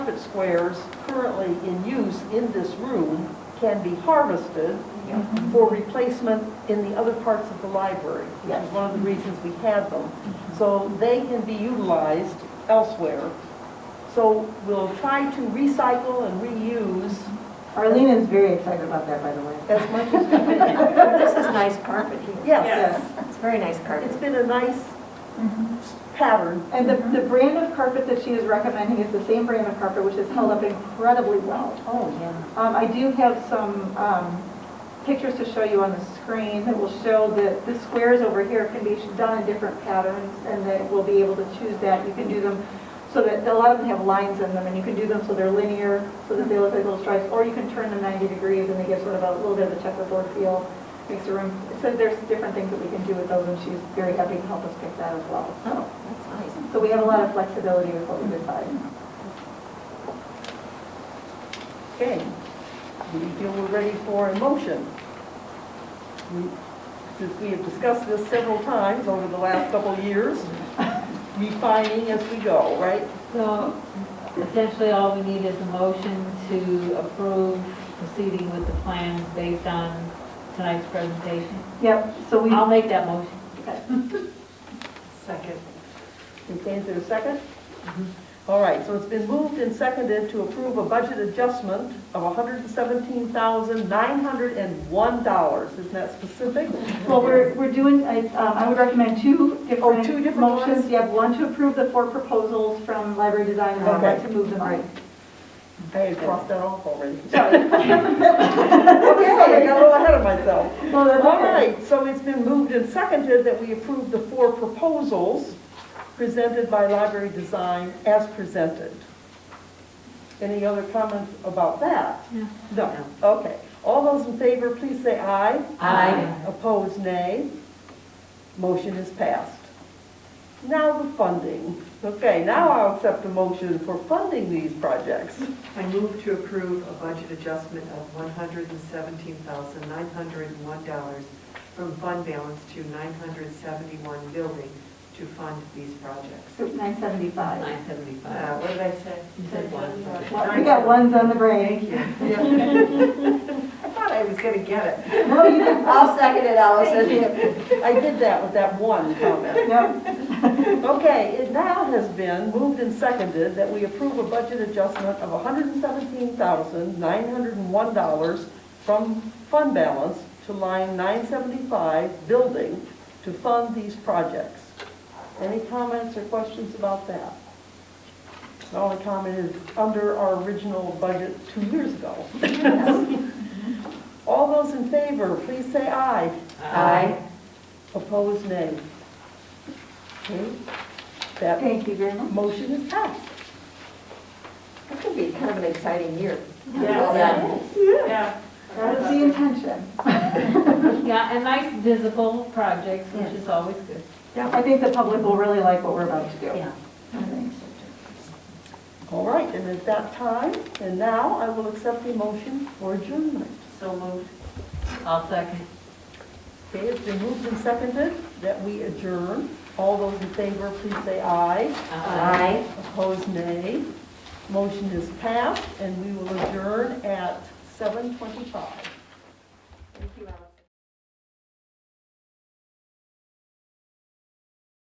squares currently in use in this room can be harvested Mm-hmm. for replacement in the other parts of the library, which is Yes. one of the reasons we had them. Mm-hmm. So they can be utilized elsewhere. So we'll try to recycle and reuse Mm-hmm. Arlene is very excited about that, by the way. as much as we can. This is nice carpet here. Yes, It's very nice it's carpet. been a nice Mm-hmm. pattern. And the, the brand of carpet that she is recommending is the same brand of carpet, which has held up incredibly well. Oh, yeah. Um, I do have some, um, pictures to show you on the screen that will show that the squares over here can be done in different patterns and that we'll be able to choose that. You can do them so that, a lot of them have lines in them and you can do them so they're linear, so that they look like little stripes, or you can turn them ninety degrees and they give sort of a little bit of a checkerboard feel. Makes the room, so there's different things that we can do with those and she's very happy to help us pick that as well, so. That's nice. So we have a lot of flexibility with what we decide. Okay, we feel we're ready for a motion. We- Since we have discussed this several times over the last couple of years, refining as we go, right? So essentially, all we need is a motion to approve proceeding with the plans based on tonight's presentation. Yep, so we, I'll make that motion. Second. Okay, is there a second? All right, so it's been moved and seconded to approve a budget adjustment of $117,901. Isn't that specific? well, we're, we're doing, I, um, I would recommend two different. Oh, two different ones? Motions, you have one to approve the four proposals from library design, and one Okay. to move them on. I had crossed that off already. Sorry. Okay, I got a little ahead of myself. Well, that's All okay. right, so it's been moved and seconded that we approve the four proposals presented by Library Design as presented. Any other comments about that? No. No, okay. All those in favor, please say aye. Aye. Opposed, nay. Motion is passed. Now the funding. Okay, now I'll accept a motion for funding these projects. I move to approve a budget adjustment of one hundred and seventeen thousand nine hundred and one dollars from fund balance to nine hundred seventy-one building to fund these projects. So Nine seventy-five. Nine seventy-five. Uh, what did I say? You said one. Well, we got ones on the brain. Thank you. I thought I was gonna get it. No, you didn't. I'll second it, Allison. I did that with that one comment. Yep. Okay, it now has been moved and seconded that we approve a budget adjustment of $117,901 from fund balance to line 975, building, to fund these projects. Any comments or questions about that? The only comment is under our original budget two years ago. All those in favor, please say aye. Aye. Opposed, nay. Okay, that Thank you very much. motion is passed. This could be kind of an exciting year. Yes. Yeah. That was the intention. Yeah, and nice visible projects, which is always good. I think the public will really like what we're about to do. Yeah. I think. All right, and at that time, and now I will accept the motion for adjournment. So moved. I'll second. Okay, it's been moved and seconded that we adjourn. All those in favor, please say aye. Aye. Opposed, nay. Motion is passed, and we will adjourn at 7:25.